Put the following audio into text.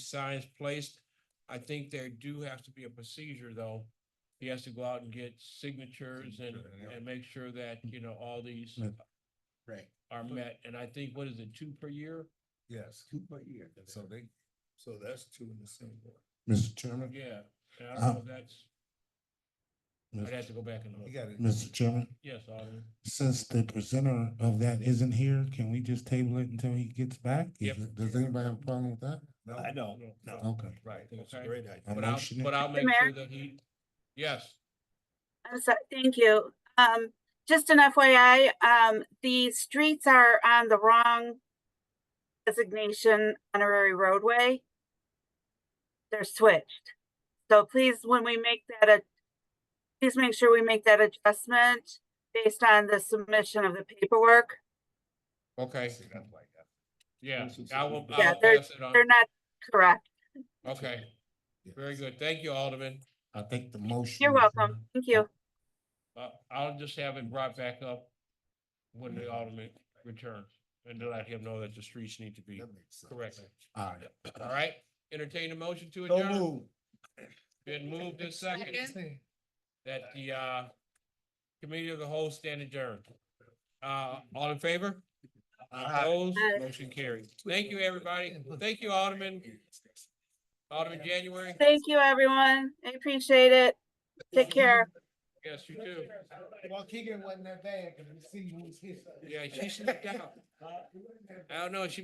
signs placed. I think there do have to be a procedure, though. He has to go out and get signatures and, Signature, yeah. and make sure that, you know, all these Mm. Right, are met. And I think, what is it, two per year? yes. Two per year. So they. So that's two in the same one. Mr. Chairman? Yeah. And I don't know Uh-huh. if that's, I'd have Mr. to go back and You look. got it. Mr. Chairman, Yes, Alderman. since the presenter of that isn't here, can we just table it until he gets back? Is Yep. it- Does anybody have a problem with that? No, I don't, No. no, Okay. Right, that's a Okay. great idea. I'm But I'll, motioning- but I'll make sure Mayor? that he, yes, I'm sorry, thank you. Um, just an FYI, um, the streets are on the wrong designation honorary roadway. They're switched. So please, when we make that, a, please make sure we make that adjustment based on the submission of the paperwork. okay, See, that's like that. yeah. This is- I will, I Yeah, will they're- pass it on. They're not correct. Okay, Yeah. very good. Thank you, Alderman. I think the motion. You're is, uh, welcome. Thank you. Uh, I'll just have it brought back up when the alderman returns and to let him know that the streets need to be That makes sense. corrected. All right. All right, entertain a motion to So adjourn. move. Been moved this second that the, uh, committee of the whole stand adjourned. Uh, all in favor? Opposed? Aye. Motion carried. Thank you, everybody. Thank you, Alderman, Alderman January. Thank you, everyone. I appreciate it. Take care. Yes, you too. Well, Keegan wasn't that bad, cause we see who's here. Yeah, she slipped out. I don't know, she